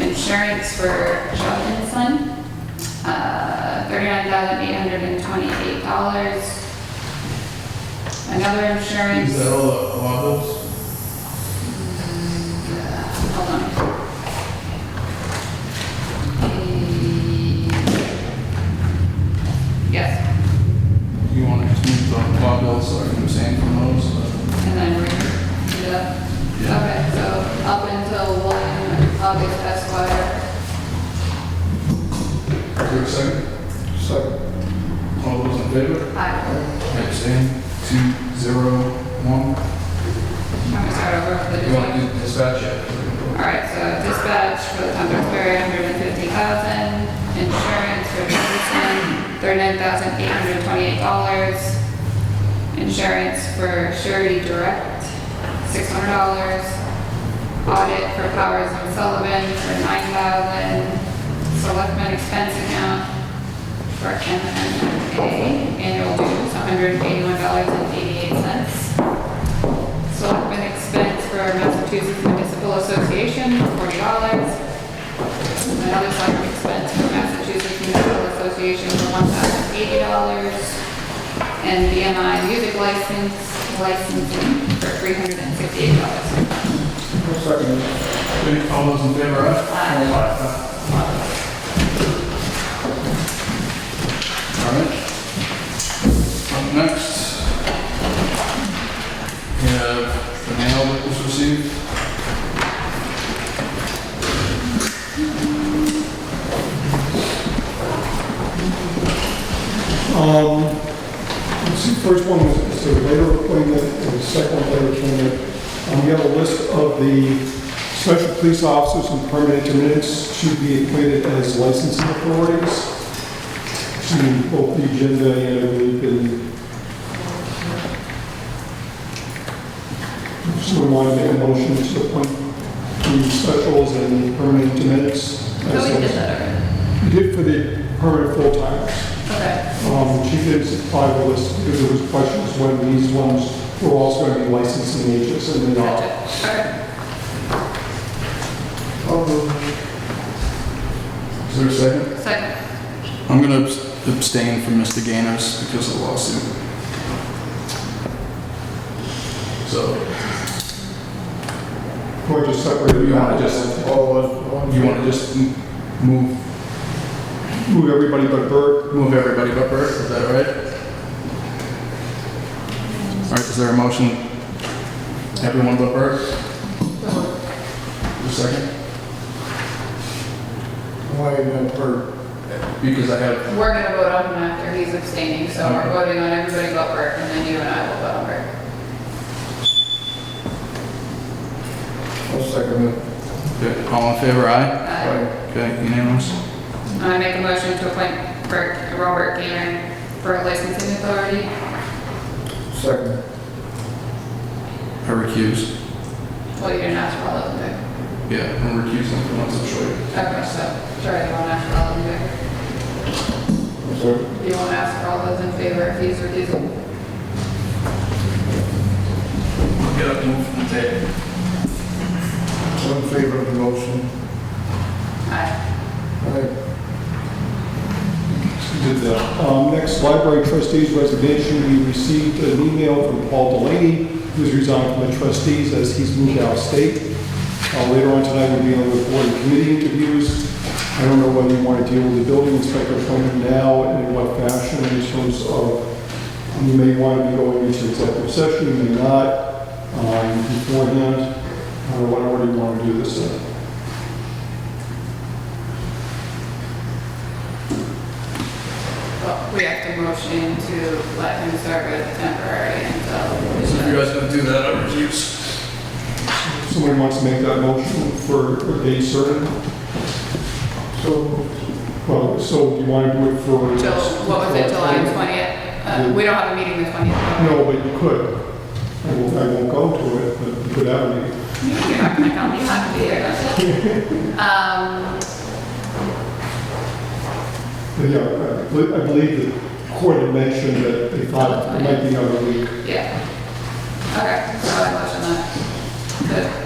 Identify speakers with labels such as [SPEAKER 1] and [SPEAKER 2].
[SPEAKER 1] insurance for Sheldon's son, uh, $39,828. Another
[SPEAKER 2] Is that
[SPEAKER 1] insurance,
[SPEAKER 2] all the wobbles?
[SPEAKER 1] uh, hold on. The- Yes,
[SPEAKER 2] You want to move the wobbles, like you were saying, from those? uh,
[SPEAKER 1] and then read it up.
[SPEAKER 2] Yeah.
[SPEAKER 1] Okay, so up until 1 August Esquire,
[SPEAKER 2] Is there a second? Second. All those in favor?
[SPEAKER 1] I,
[SPEAKER 2] Abstain. Two, zero, one.
[SPEAKER 1] I'm gonna start over with the
[SPEAKER 2] You want to
[SPEAKER 1] dispatch.
[SPEAKER 2] do the dispatch yet?
[SPEAKER 1] All right, so dispatch for the Duxbury, 150,000, insurance for Peterson, 39,828 dollars, insurance for Surety Direct, 600 dollars, audit for Powers and Sullivan for 9,000, selectmen expense account for MMA, annual dues, 181 dollars and 88 cents. Selectmen expense for Massachusetts Municipal Association, forty dollars. Another selectmen expense for Massachusetts Municipal Association for one thousand eighty dollars. And BMI music license, licensing for three hundred and fifty-eight dollars.
[SPEAKER 2] Okay, All those in favor, aye?
[SPEAKER 1] Aye.
[SPEAKER 2] All right. Up next, we have the mail that was received.
[SPEAKER 3] Um, let's see, first one was, is the later appointment, and the second later appointment. Um, we have a list of the special police officers and permanent intermediates to be appointed as licensing authorities. To both the agenda and I believe in. Someone want to make a motion to appoint the specials and permanent intermediates? as
[SPEAKER 1] So Oh, we did that already.
[SPEAKER 3] We did for the permanent full-timers.
[SPEAKER 1] Okay.
[SPEAKER 3] Um, She did supply the list, because there was questions when these ones were also going to be licensing agents and uh, they're not.
[SPEAKER 1] Gotcha. Okay.
[SPEAKER 2] Is there a second?
[SPEAKER 1] Second.
[SPEAKER 2] I'm gonna abs- abstain from Mr. Gainers because of the lawsuit. So,
[SPEAKER 3] We're just separated.
[SPEAKER 2] You wanna just-
[SPEAKER 3] Oh,
[SPEAKER 2] you wanna just m- move,
[SPEAKER 3] Move everybody but Bert.
[SPEAKER 2] move everybody but Bert, is that all right? All right, is there a motion? Everyone but Bert? Just a second?
[SPEAKER 3] Why not Bert?
[SPEAKER 2] Because I have,
[SPEAKER 1] We're gonna vote on him after he's abstaining, so we're
[SPEAKER 2] Okay.
[SPEAKER 1] voting on everybody but Bert, and then you and I will vote on Bert.
[SPEAKER 3] I'll second it.
[SPEAKER 2] okay, all in favor, aye?
[SPEAKER 1] Aye.
[SPEAKER 2] Okay, unanimous?
[SPEAKER 1] I make a motion to appoint Bert, Robert Gayren for licensing authority.
[SPEAKER 3] Second.
[SPEAKER 2] I recuse.
[SPEAKER 1] Well, you didn't ask for all of them,
[SPEAKER 2] Yeah, I'm recusing for once in short.
[SPEAKER 1] but, okay, so, sorry, you won't ask for all of them,
[SPEAKER 3] So,
[SPEAKER 1] but you won't ask for all those in favor if he's recusing.
[SPEAKER 2] Get up, and move from the table.
[SPEAKER 3] in favor of the motion?
[SPEAKER 1] Aye.
[SPEAKER 3] Did that. Um, Next, library trustees resignation. We received an email from Paul Delaney, who's resigned from the trustees as he's moved out of state. Uh, Later on tonight, we'll be on the board and committee interviews. I don't know whether you want to deal with the building inspector appointment now and in what fashion in terms of, um, you may want to be going into executive session, you may not, um, beforehand. Uh, Whatever you want to do this uh, in.
[SPEAKER 1] Well, we have to motion to let him serve as temporary
[SPEAKER 2] So if you
[SPEAKER 1] until.
[SPEAKER 2] guys don't do that, I refuse.
[SPEAKER 3] Someone wants to make that motion for a date certain? So. Well, so you want to do it for...
[SPEAKER 1] Till, what was it, July twentieth? Uh, we don't have a meeting the twentieth.
[SPEAKER 3] No, but you could. I won't, I won't go to it, but you could have a meeting.
[SPEAKER 1] You're not gonna come, you have to be there, that's it. Um,
[SPEAKER 3] But yeah, I believe- I believe the court had mentioned that they thought it might be another week.
[SPEAKER 1] yeah. Okay, so I motion that. Good.